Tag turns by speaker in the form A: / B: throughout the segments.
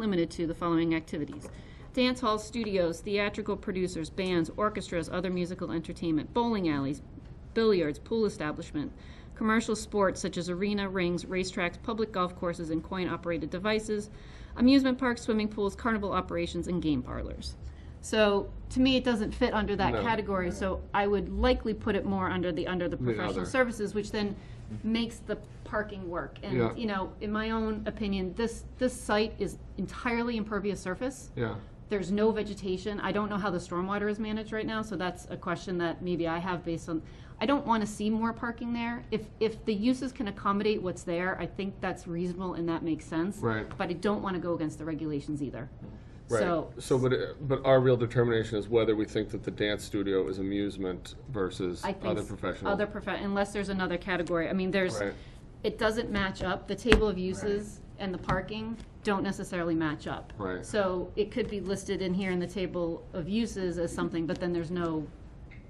A: limited to the following activities. Dance halls, studios, theatrical producers, bands, orchestras, other musical entertainment, bowling alleys, billiards, pool establishment, commercial sports such as arena, rings, racetracks, public golf courses, and coin-operated devices, amusement parks, swimming pools, carnival operations, and game parlors. So, to me, it doesn't fit under that
B: No.
A: category, so I would likely put it more under the, under the professional
B: other.
A: services, which then makes the parking work.
B: Yeah.
A: And, you know, in my own opinion, this, this site is entirely impervious surface.
B: Yeah,
A: There's no vegetation. I don't know how the stormwater is managed right now, so that's a question that maybe I have based on, I don't want to see more parking there. If, if the uses can accommodate what's there, I think that's reasonable and that makes sense.
B: Right.
A: But I don't want to go against the regulations either.
B: right.
A: So
B: So, but, it- but our real determination is whether we think that the dance studio is amusement versus
A: I think
B: other
A: s-
B: professional.
A: Other profe- unless there's another category. I mean, there's,
B: Right.
A: it doesn't match up. The table of uses and the parking don't necessarily match up.
B: Right.
A: So it could be listed in here in the table of uses as something, but then there's no,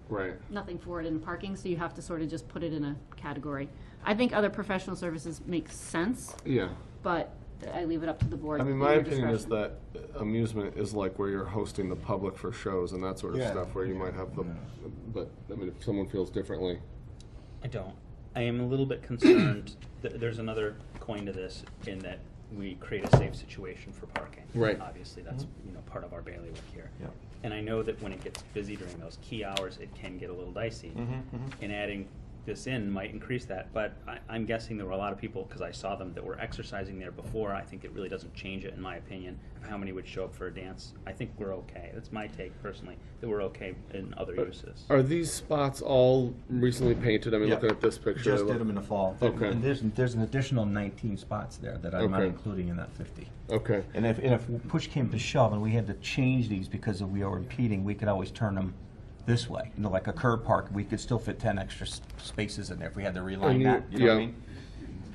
B: Right,
A: nothing for it in parking, so you have to sort of just put it in a category. I think other professional services makes sense,
B: yeah.
A: but I leave it up to the board.
C: I mean,
A: in
C: my
A: your
C: opinion is
A: discretion.
C: that amusement is like where you're hosting the public for shows and that sort of
D: Yeah.
C: stuff, where you might have the,
B: But, I mean, if someone feels differently,
E: I don't. I am a little bit concerned that there's another coin to this in that we create a safe situation for parking.
B: Right.
E: Obviously, that's, you know, part of our bailiwick here.
D: Yep.
E: And I know that when it gets busy during those key hours, it can get a little dicey.
D: Mm-hmm.
B: Mm-hmm,
E: And adding this in might increase that, but I, I'm guessing there were a lot of people, because I saw them, that were exercising there before. I think it really doesn't change it, in my opinion, of how many would show up for a dance. I think we're okay. That's my take personally, that we're okay in other uses.
D: uh,
B: are these spots all recently painted? I mean,
D: Yeah.
B: looking at this picture.
D: Just
B: they
D: did them in
B: look-
D: the fall.
B: Okay.
D: And there's, there's an additional 19 spots there that I'm not
B: Okay.
D: including in that 50.
B: Okay,
D: And if, and if push came to shove and we had to change these because of we are impeding, we could always turn them this way. You know, like a curb park, we could still fit 10 extra s- spaces in there if we had to
B: And
D: reline
B: you-
D: that, you know what I
B: yeah.
D: mean?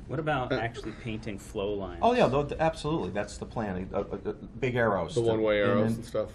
E: What about actually painting flow lines?
D: uh, Oh, yeah, tho- absolutely, that's the plan, uh, uh, uh, big arrows.
B: the one-way
D: And
B: arrows
D: then
B: and stuff.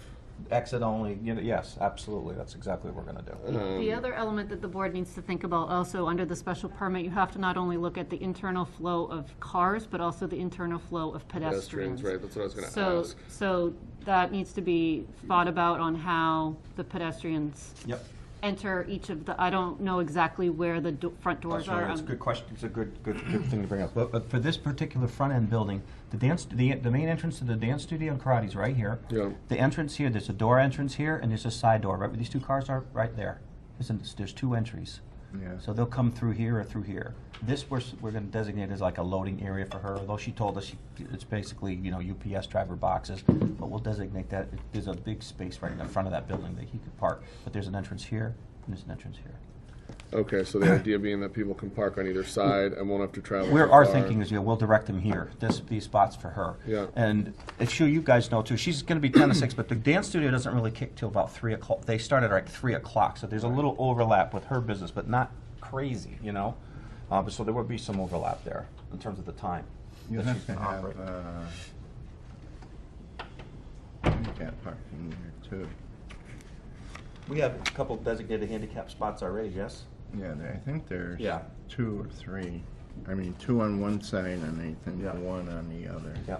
D: Exit only, you know, yes, absolutely, that's exactly what we're gonna do.
B: Uh-huh.
A: The other element that the board needs to think about also, under the special permit, you have to not only look at the internal flow of cars, but also the internal flow of pedestrians.
B: Pedestrians, right, that's what I was gonna
A: So,
B: ask.
A: so that needs to be thought about on how the pedestrians
D: Yep.
A: enter each of the, I don't know exactly where the do- front doors
D: Sure,
A: are.
D: It's a
A: Um,
D: good question, it's a good, good, good thing to bring up. But, but for this particular front-end building, the dance, the, the main entrance to the dance studio and karate is right here.
B: Yeah.
D: The entrance here, there's a door entrance here, and there's a side door, right where these two cars are, right there. There's, an- there's two entries.
C: Yeah.
D: So they'll come through here or through here. This, we're, s- we're gonna designate as like a loading area for her, although she told us she- it's basically, you know, UPS driver boxes, but we'll designate that, there's a big space right in the front of that building that he could park. But there's an entrance here, and there's an entrance here.
B: Okay, so the idea being that people can park on either side and won't have to travel.
D: Where
B: so
D: our
B: far.
D: thinking is, yeah, we'll direct them here, this, these spots for her.
B: Yeah.
D: And it's sure you guys know too, she's gonna be ten to six, but the dance studio doesn't really kick till about three o'clock. They start at like three o'clock, so there's a little overlap with her business, but not crazy, you know? Uh, but so there would be some overlap there in terms of the time.
F: You
D: that she's
F: have to
D: gonna
F: have,
D: operate.
F: uh, handicap parking there too.
D: We have a couple designated handicap spots already, yes?
F: Yeah, there- I think there's
D: Yeah.
F: two or three. I mean, two on one side and I think
D: Yeah.
F: one on the other.
D: Yeah.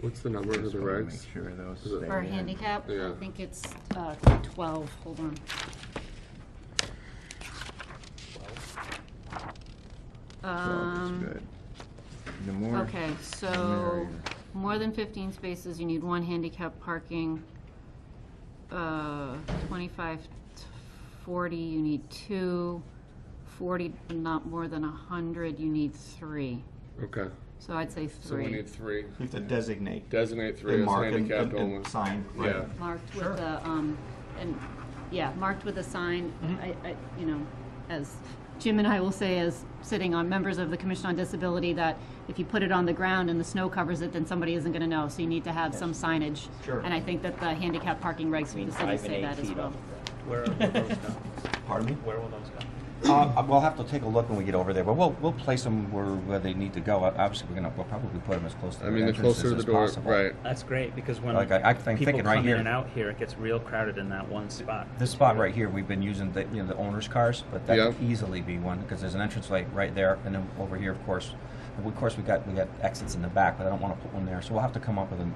B: What's the number of
F: Just
B: the
F: wanna
B: regs?
F: Make sure those
B: Is it-
F: stay
A: For
F: in.
A: handicap, I
B: Yeah.
A: think it's uh, 12, hold on.
F: Twelve
A: Um,
F: is good. The more.
A: Okay, so, more than fifteen spaces, you need one handicap parking. Uh, twenty-five, to forty, you need two. Forty, not more than a hundred, you need three.
B: Okay,
A: So I'd say
B: so we
A: three,
B: need three.
D: We have to designate.
B: Designate three as handicapped only.
D: sign,
B: Yeah,
A: marked with a, um, and, yeah, marked with a sign.
E: Mm-hmm.
A: I, I, you know, as Jim and I will say, as sitting on members of the Commission on Disability, that if you put it on the ground and the snow covers it, then somebody isn't gonna know, so you need to have some signage.
D: Sure.
A: And I think that the handicap parking regs for the city
E: Five and
A: say
E: eight
A: that as
E: feet
A: well.
E: up. Where will those go?
D: Pardon me?
E: Where will those go?
D: Uh, we'll have to take a look when we get over there, but we'll, we'll place them where, where they need to go. Uh, Obviously, we're gonna, we'll probably put them as close to
B: I
D: the
B: mean, the
D: entrances
B: closer to the
D: as
B: door,
D: possible.
B: right.
E: That's great because when
D: Like, I- I'm thinking
E: people
D: right
E: come
D: here.
E: in and out here, it gets real crowded in that one spot.
D: This spot right here, we've been using the, you know, the owner's cars, but that
B: Yeah.
D: could easily be one, because there's an entrance light right there, and then over here, of course, Of course, we got, we got exits in the back, but I don't want to put one there, so we'll have to come up with an